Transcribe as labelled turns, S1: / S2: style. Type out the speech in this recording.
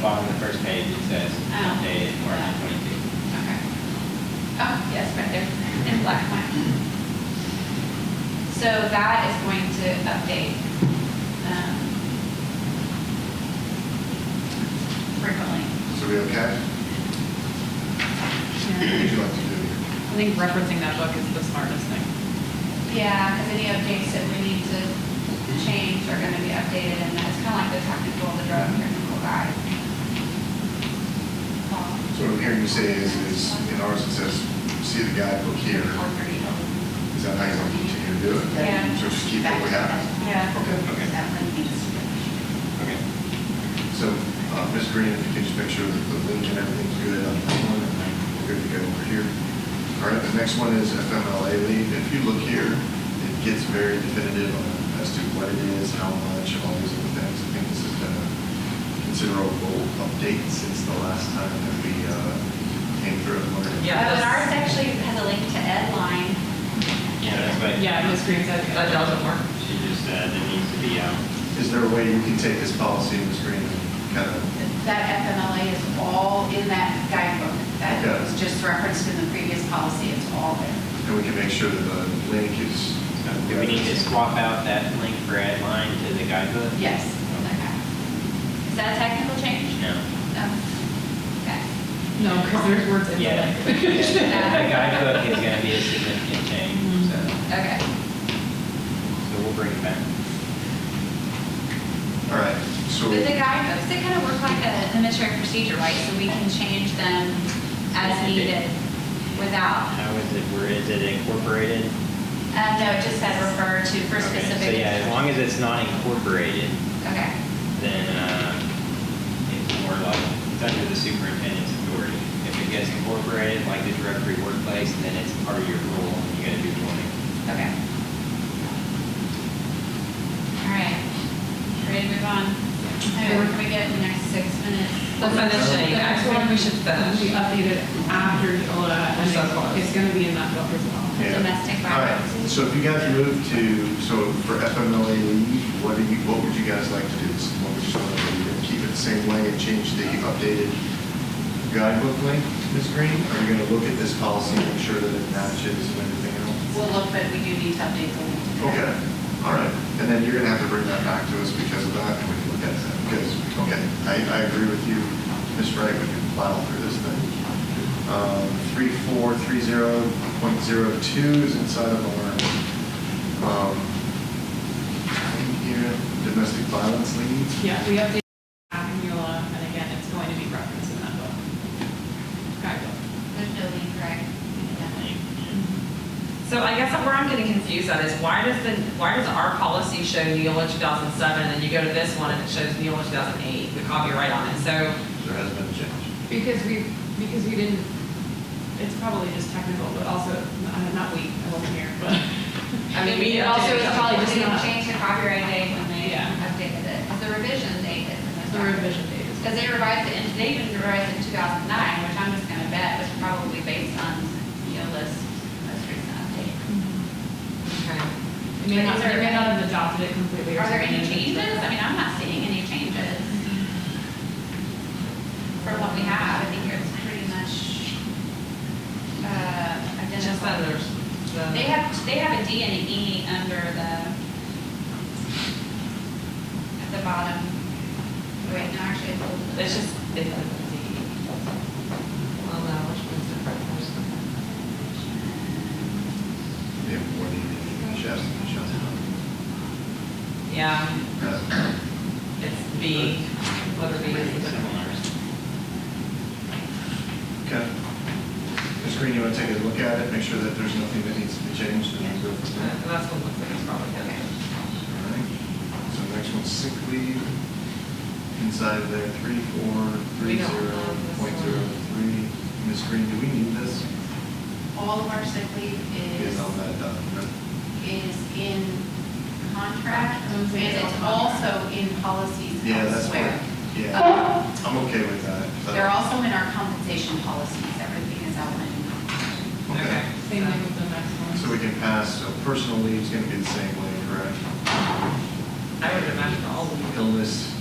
S1: bottom of the first page, it says
S2: Oh.
S1: updated March twenty-two.
S2: Okay. Oh, yes, right there, in black and white. So that is going to update um, frequently.
S3: So we okay? What would you like to do?
S4: I think referencing that book is the smartest thing.
S2: Yeah, because any updates that we need to change are going to be updated, and that's kind of like the technical, the drug technical guide. Um,
S3: So what I'm hearing you say is, is in ours it says, see the guidebook here.
S2: or pretty old.
S3: Is that how you want to continue to do it?
S2: Yeah.
S3: So just keep what we have?
S2: Yeah.
S3: Okay.
S1: Okay. Okay.
S3: So, uh, Ms. Green, if you could just make sure that the link and everything's good on that one, and we're good to go over here. All right, the next one is FMLA leave. If you look here, it gets very definitive on as to what it is, how much, all these other things. I think this has been a considerable update since the last time that we uh, came through. and looked at it.
S4: Yeah,
S2: Oh, and
S4: that's-
S2: ours actually has a link to Edline.
S1: Yeah, that's what.
S4: Yeah, Ms. Green said that doesn't work.
S1: She just said it needs to be, um,
S3: Is there a way you can take this policy, Ms. Green, and kind of
S5: That FMLA is all in that guidebook. That
S3: Okay.
S5: was just referenced in the previous policy. It's all there.
S3: And we can make sure that the link is.
S1: so do we need to swap out that link for add line to the guidebook?
S5: Yes.
S2: Is that a technical change?
S1: No.
S2: No. Okay.
S4: No, because there's words in
S1: Yeah,
S4: there.
S1: the guidebook is gonna be a significant
S2: Mm-hmm.
S1: change, so,
S2: Okay.
S1: so we'll bring it back.
S3: All right, so,
S2: But the guidebooks, they kind of work like a administrative procedure, right? So we can change them as needed without,
S1: How is it, where is it incorporated?
S2: uh, no, it just said refer to for
S1: Okay, So
S2: specific.
S1: yeah, as long as it's not incorporated,
S2: Okay.
S1: then uh, it's more like, it's under the superintendent's authority. If it gets incorporated, like the directory workplace, then it's part of your rule, and you gotta do one.
S2: Okay. All right. Ready to move on? Okay, where can we get in the next six minutes?
S4: The finishing, I think we should finish. We updated after Yola, and it's- it's gonna be in that book as well.
S3: yeah.
S2: Domestic
S3: All right,
S2: violence.
S3: so if you guys move to, so for FMLA leave, what do you, what would you guys like to do? So What would you want to do? Keep it the same way and change the updated guidebook link, Ms. Green? Are you going to look at this policy and make sure that it matches and everything else?
S5: We'll look, but we do need to update the link.
S3: Okay, all right. And then you're going to have to bring that back to us because of that, and we can look at that. Because, okay, I, I agree with you, Ms. Wright, we can plow through this thing. Um, 3430.02 is inside of our, um, thing here, domestic violence leads.
S4: Yeah, we updated after Yola, and again, it's going to be referenced in that book. Guidebook.
S2: There's no lead, right?
S6: So I guess where I'm getting confused at is why does the, why does our policy show Neola 2007 and then you go to this one and it shows Neola 2008, the copyright on it? So,
S3: There has been a change.
S4: Because we, because we didn't, it's probably just technical, but also, uh, not we, I wasn't here, but.
S6: I mean, we.
S4: It also is
S6: updated-
S4: probably just
S2: They
S4: not-
S2: changed the copyright date when they
S4: Yeah.
S2: updated it, the revision date. that's
S4: The
S2: in
S4: revision date is.
S2: Because they revised it, in- they even revised it in 2009, which I'm just going to bet was probably based on, you know, this most recent update.
S6: Okay.
S4: It may not, they may not have adopted it completely. or
S2: Are there any
S4: something.
S2: changes? I mean, I'm not seeing any changes. From what we have, I think it's pretty much uh,
S6: It's just
S2: identical.
S6: that there's the.
S2: They have, they have a D and an E under the, at the bottom. Wait, no, actually, it's a little bit-
S6: It's just, it's the. Well, no, which one's different? There's the-
S3: Yeah, what do you, Shasta, Shasta.
S6: Yeah, it's B, letter B is the different one.
S3: Okay. Ms. Green, you want to take a look at it, make sure that there's nothing that needs to be changed, and then go from there?
S6: And that's what looks like it's probably going to.
S3: All right. So next one's sick leave. Inside of there, three, four, three,
S6: We don't
S3: zero,
S6: have this
S3: point
S6: one.
S3: zero, three. Ms. Green, do we need this?
S5: All of our sick leave is,
S3: Is on that document?
S5: is in contract,
S4: Mm,
S5: and
S4: so it's
S5: it's
S4: on
S5: also in policies
S3: Yeah, that's
S5: elsewhere.
S3: where,
S2: Uh,
S3: yeah, I'm okay with that. So-
S5: They're also in our compensation policies. Everything is outlined.
S3: Okay.
S4: Same thing with the next one.
S3: So we can pass, so personal leave's gonna be the same way, correct?
S6: I would imagine all of them.
S3: Illness,